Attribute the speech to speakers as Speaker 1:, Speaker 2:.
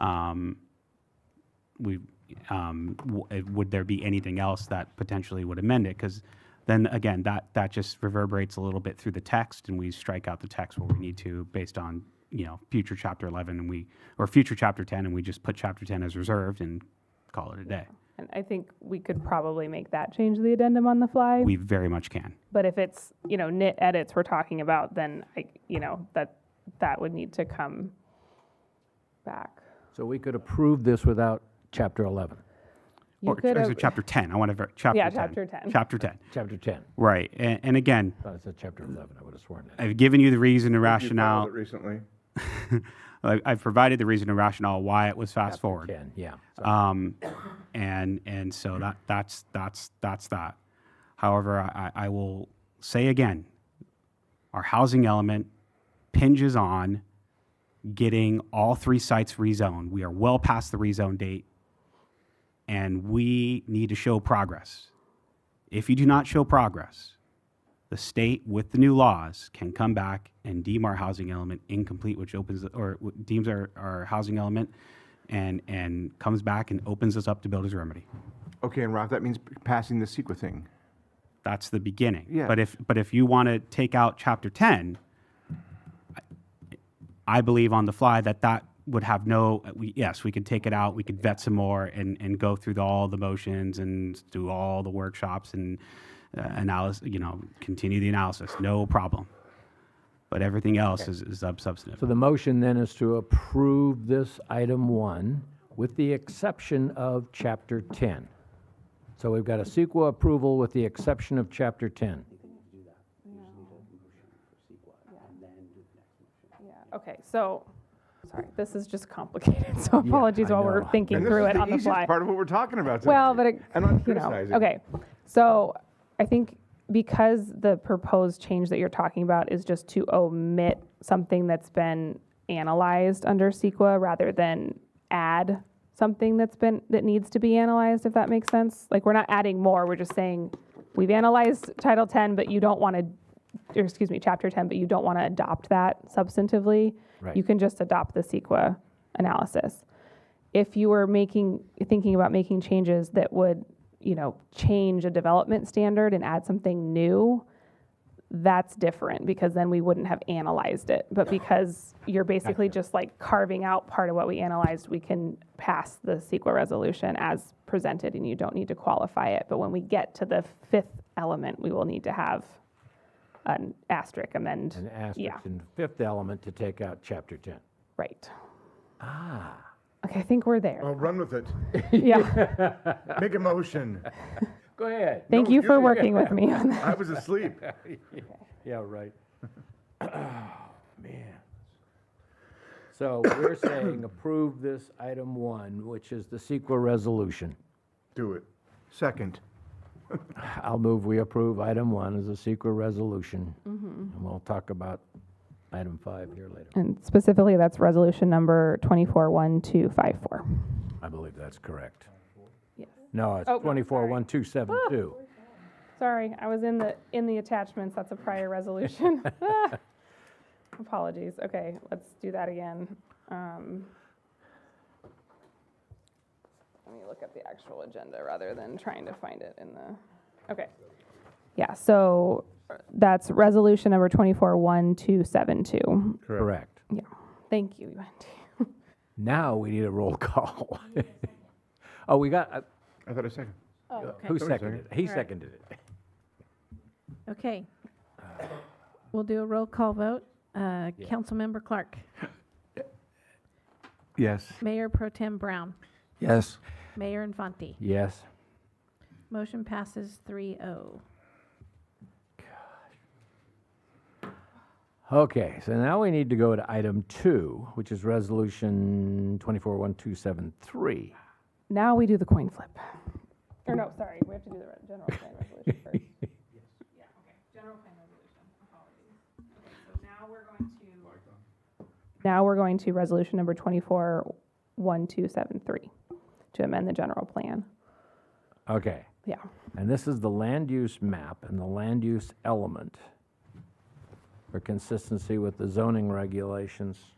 Speaker 1: um, we, um, w- eh, would there be anything else that potentially would amend it? Because then again, that, that just reverberates a little bit through the text and we strike out the text where we need to based on, you know, future chapter 11 and we, or future chapter 10 and we just put chapter 10 as reserved and call it a day.
Speaker 2: And I think we could probably make that change to the addendum on the fly.
Speaker 1: We very much can.
Speaker 2: But if it's, you know, nit edits we're talking about, then I, you know, that, that would need to come back.
Speaker 3: So we could approve this without Chapter 11,
Speaker 2: You
Speaker 1: Or,
Speaker 2: could
Speaker 1: or is
Speaker 2: have-
Speaker 1: it chapter 10? I want to, ver- chapter 10.
Speaker 2: Yeah, chapter 10.
Speaker 1: Chapter 10,
Speaker 3: Chapter 10.
Speaker 1: right. And, and again,
Speaker 3: I thought it said Chapter 11, I would have sworn that.
Speaker 1: I've given you the reason and
Speaker 4: You filed
Speaker 1: rationale.
Speaker 4: it Recently.
Speaker 1: I- I've provided the reason and rationale why it was fast forward.
Speaker 3: 10, yeah.
Speaker 1: Um, and, and so that, that's, that's, that's that. However, I, I I will say again, our housing element pinges on getting all three sites rezoned. We are well past the rezone date and we need to show progress. If you do not show progress, the state with the new laws can come back and deem our housing element incomplete, which opens, or w- deems our, our housing element and, and comes back and opens us up to builder's remedy.
Speaker 4: Okay, and Ralph, that means p- passing the secret thing.
Speaker 1: That's the beginning.
Speaker 4: Yeah.
Speaker 1: But if, but if you want to take out chapter 10, I- I believe on the fly that that would have no, we, yes, we could take it out, we could vet some more and, and go through the- all the motions and do all the workshops and uh, analysis, you know, continue the analysis, no problem. But everything else is, is
Speaker 3: So
Speaker 1: substantive.
Speaker 3: the motion then is to approve this item one with the exception of Chapter 10. So we've got a sequel approval with the exception of Chapter 10.
Speaker 2: Okay, so, sorry, this is just complicated, so
Speaker 3: Yeah,
Speaker 2: apologies
Speaker 3: I
Speaker 2: while we're
Speaker 3: know.
Speaker 2: thinking
Speaker 4: And this
Speaker 2: through
Speaker 4: is
Speaker 2: it
Speaker 4: the
Speaker 2: on the
Speaker 4: easiest
Speaker 2: fly.
Speaker 4: Part of what we're talking about today.
Speaker 2: Well, but it,
Speaker 4: And I'm
Speaker 2: you know,
Speaker 4: criticizing.
Speaker 2: okay. So I think because the proposed change that you're talking about is just to omit something that's been analyzed under CEQA rather than add something that's been, that needs to be analyzed, if that makes sense. Like, we're not adding more, we're just saying, we've analyzed Title 10, but you don't want to, or excuse me, Chapter 10, but you don't want to adopt that substantively.
Speaker 3: Right.
Speaker 2: You can just adopt the CEQA analysis if you were making thinking about making changes that would you know change a development standard and add something new that's different because then we wouldn't have analyzed it but because you're basically just like carving out part of what we analyzed we can pass the CEQA resolution as presented and you don't need to qualify it but when we get to the fifth element we will need to have an asterisk amend
Speaker 3: An
Speaker 2: yeah
Speaker 3: asterisk and fifth element to take out Chapter 10.
Speaker 2: right
Speaker 3: Ah, Oh,
Speaker 2: okay i think we're there
Speaker 5: Well, run with it.
Speaker 2: yeah
Speaker 5: Make a motion.
Speaker 3: go ahead.
Speaker 2: thank
Speaker 5: No,
Speaker 2: you for
Speaker 5: you-
Speaker 2: working with me on that
Speaker 5: I was asleep.
Speaker 3: Yeah, right. Oh, man. So we're saying approve this item one, which is the CEQA resolution.
Speaker 5: Do it. Second.
Speaker 3: I'll move we approve item one as a CEQA resolution.
Speaker 2: Mm-hmm.
Speaker 3: And we'll talk about item five here later.
Speaker 2: And specifically, that's resolution number 241254.
Speaker 3: I believe that's correct.
Speaker 2: Yes.
Speaker 3: No, it's
Speaker 2: Oh, no,
Speaker 3: twenty-four
Speaker 2: sorry. Oh.
Speaker 3: one two seven two.
Speaker 2: Sorry, I was in the, in the attachments, that's a prior resolution. Ah. Apologies, okay, let's do that again. Um, Let me look at the actual agenda rather than trying to find it in the, okay. Yeah, so uh, that's resolution number 241272.
Speaker 3: Correct.
Speaker 2: Yeah, thank you, Wendy.
Speaker 3: Now we need a roll call. Oh, we got, uh,
Speaker 4: I thought a second.
Speaker 3: who
Speaker 4: Tony
Speaker 3: seconded it? He seconded it.
Speaker 6: Okay. We'll do a roll call vote. Uh, Councilmember Clark,
Speaker 4: Yes.
Speaker 6: Mayor Pro Tem Brown,
Speaker 3: Yes.
Speaker 6: Mayor Infante.
Speaker 3: Yes.
Speaker 6: Motion passes oh. 3-0.
Speaker 3: Okay, so now we need to go to item two, which is resolution twenty-four one two seven three.
Speaker 2: Now we do the coin flip. Or no, sorry, we have to do the re- general plan resolution first. Yeah, okay, general plan resolution, apologies. Okay, so now we're going to. Now we're going to resolution number twenty-four, one, two, seven, three, to amend the general plan.
Speaker 3: Okay,
Speaker 2: Yeah,
Speaker 3: and this is the land use map and the land use element for consistency with the zoning regulations